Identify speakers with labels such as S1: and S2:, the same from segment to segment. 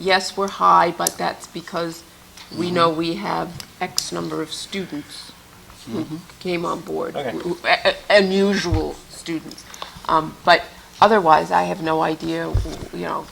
S1: yes, we're high, but that's because
S2: Mm-hmm.
S1: we know we have X number of students who came on board.
S2: Mm-hmm. Okay.
S1: who- a- a- Unusual students. Um, But otherwise, I have no idea, you know,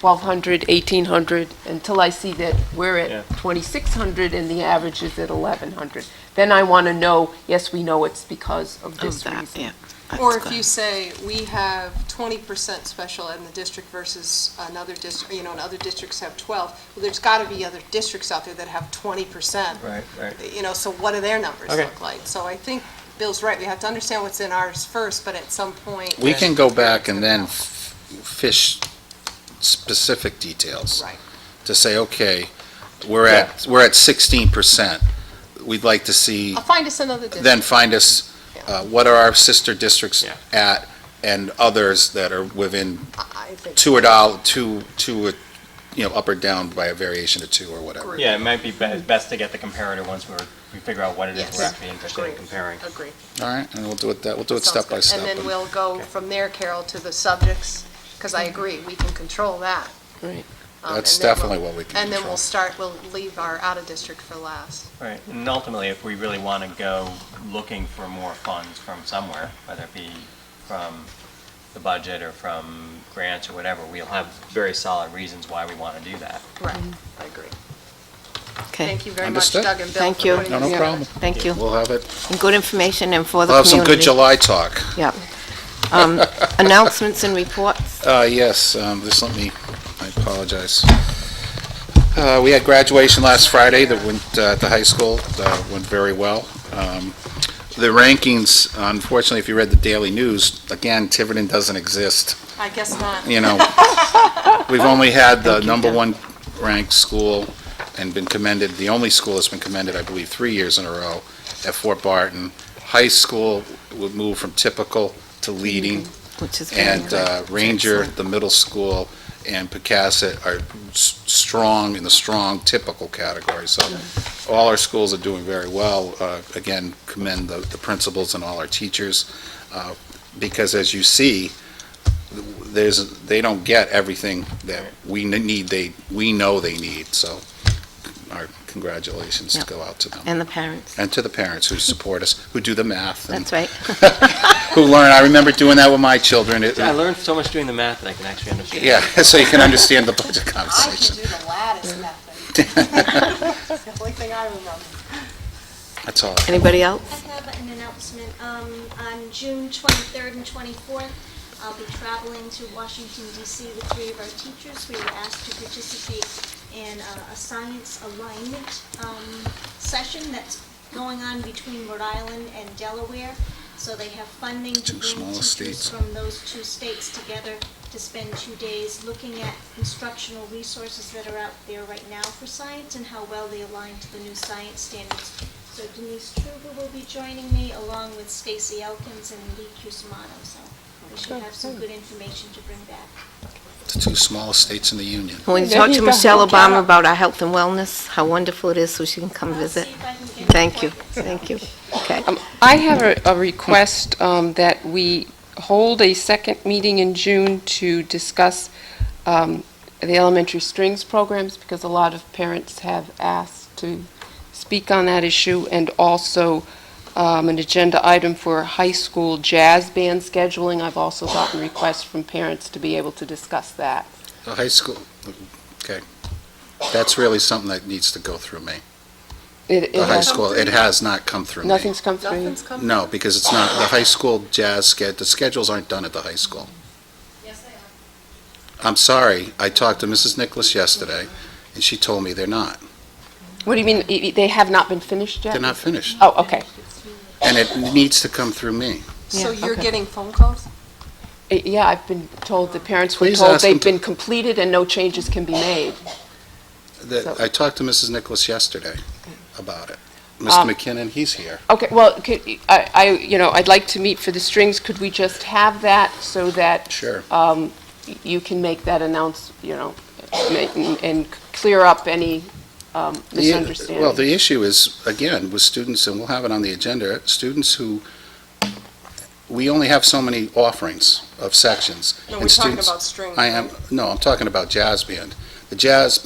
S1: 1,200, 1,800, until I see that we're
S2: Yeah.
S1: at 2,600 and the average is at 1,100. Then I want to know, yes, we know it's because of
S3: Of
S1: this
S3: that,
S1: reason.
S3: yeah.
S4: Or
S3: That's
S4: if
S3: good.
S4: you say, we have twenty percent special ed in the district versus another district, you know, and other districts have twelve, well, there's gotta be other districts out there that have twenty percent.
S2: Right, right.
S4: You know, so what do their numbers
S2: Okay.
S4: look like? So I think Bill's right, we have to understand what's in ours first, but at some point.
S5: We can go back and then f- fish specific details.
S4: Right.
S5: To say, okay, we're at, we're at sixteen percent. We'd like to see,
S4: I'll find us another district.
S5: then find us, uh, what are our sister districts
S2: Yeah.
S5: at and others that are within
S4: I I think.
S5: two or doll, two, two, uh, you know, up or down by a variation of two or whatever.
S2: Yeah, it might be be- best to get the comparator once we're, we figure out what it is
S4: Yes.
S2: we're actually interested in
S4: Agree.
S2: comparing.
S4: Agree.
S5: All right, and we'll do it, that, we'll do it
S4: Sounds
S5: step by
S4: good.
S5: step.
S4: And then we'll go
S2: Okay.
S4: from there, Carol, to the subjects, because I agree, we can control that.
S1: Right.
S4: Um,
S5: That's
S4: and then we'll-
S5: definitely what we can
S4: And then
S5: control.
S4: we'll start, we'll leave our out-of-district for last.
S2: Right, and ultimately, if we really want to go looking for more funds from somewhere, whether it be from the budget or from grants or whatever, we'll have very solid reasons why we want to do that.
S4: Right, I agree.
S3: Okay,
S4: Thank you very much,
S5: Understood.
S4: Doug and Bill,
S3: Thank
S4: for
S3: you.
S4: putting
S5: No,
S4: this
S5: no
S4: together.
S5: problem.
S3: thank you.
S5: We'll have it,
S3: And Good information and for the
S5: we'll have
S3: community.
S5: some good July talk.
S3: Yep. Um, Announcements and reports.
S5: Uh, yes, um, just let me, I apologize. Uh, we had graduation last Friday that went, uh, at the high school, uh, went very well. Um, the rankings, unfortunately, if you read the daily news, again, Tiverton doesn't exist,
S4: I guess not.
S5: you know. We've only had the number one ranked school and been commended, the only school that's been commended, I believe, three years in a row at Fort Barton. High school would move from typical to leading
S3: Which is very
S5: and
S3: good.
S5: uh, Ranger, the middle school, and Pecasset are s- strong in the strong typical category. So all our schools are doing very well. Uh, Again, commend the the principals and all our teachers, uh, because as you see, there's, they don't get everything that we n- need, they, we know they need. So our congratulations
S3: Yep.
S5: go out to them.
S3: And the parents,
S5: And to the parents who support us, who do the math, and
S3: that's right.
S5: who learn. I remember doing that with my children. It-
S2: learned so much doing the math that I can actually understand.
S5: yeah, so you can understand the budget
S4: I can
S5: conversation.
S4: do the lattice method. It's the only thing I remember.
S5: That's all.
S3: Anybody else?
S6: I have an announcement. Um, on June 23rd and 24th, I'll be traveling to Washington DC with three of our teachers. We were asked to participate in uh, a science alignment, um, session that's going on between Rhode Island and Delaware. So they have funding to
S5: Two small
S6: bring
S5: states.
S6: teachers from those two states together to spend two days looking at instructional resources that are out there right now for science and how well they align to the new science standards so Denise Truba will be joining me along with Stacy Elkins and Lee Cusimano, so we should have some good information to bring back.
S5: The two smallest states in the union.
S3: When you
S1: There
S3: talk
S1: you
S3: to
S1: go.
S3: Michelle
S1: Look at
S3: Obama
S1: her.
S3: about our health and wellness, how wonderful it is, so she can come
S6: I'll
S3: visit.
S6: see if I can get an
S3: Thank you,
S6: appointment.
S3: thank you. Okay,
S1: Um, I have a- a request um, that we hold a second meeting in June to discuss um, the elementary strings programs, because a lot of parents have asked to speak on that issue, and also um, an agenda item for high school jazz band scheduling. I've also gotten requests from parents to be able to discuss that.
S5: The high school, okay. That's really something that needs to go through me.
S1: It-
S5: The
S1: It
S5: high
S1: has,
S5: school, it has not come through me.
S1: nothing's come through.
S4: Nothing's coming.
S5: No, because it's not, the high school jazz sched, the schedules aren't done at the high school. Yes, they are. I'm sorry. I talked to Mrs. Nicholas yesterday, and she told me they're not.
S1: What do you mean, i- i- they have not been finished yet?
S5: They're not finished.
S1: Oh, okay.
S5: And it needs to come through me.
S4: So
S3: Yeah,
S4: you're
S3: okay.
S4: getting phone calls?
S1: Uh, Yeah, I've been told, the parents were
S5: Please
S1: told
S5: ask them
S1: they've
S5: to-
S1: been completed and no changes can be made.
S5: The-
S1: So-
S5: I talked to Mrs. Nicholas yesterday about it.
S1: Um,
S5: Mr. McKinnon, he's here.
S1: Okay, well, could, I, I, you know, I'd like to meet for the strings, could we just have that so that
S5: Sure.
S1: um, y- you can make that announce, you know, ma- and and clear up any um,
S5: The-
S1: misunderstanding?
S5: Well, the issue is, again, with students, and we'll have it on the agenda, students who, we only have so many offerings of sections.
S4: No,
S5: and
S4: we're talking
S5: students-
S4: about strings,
S5: I am, no, I'm talking about jazz band. The jazz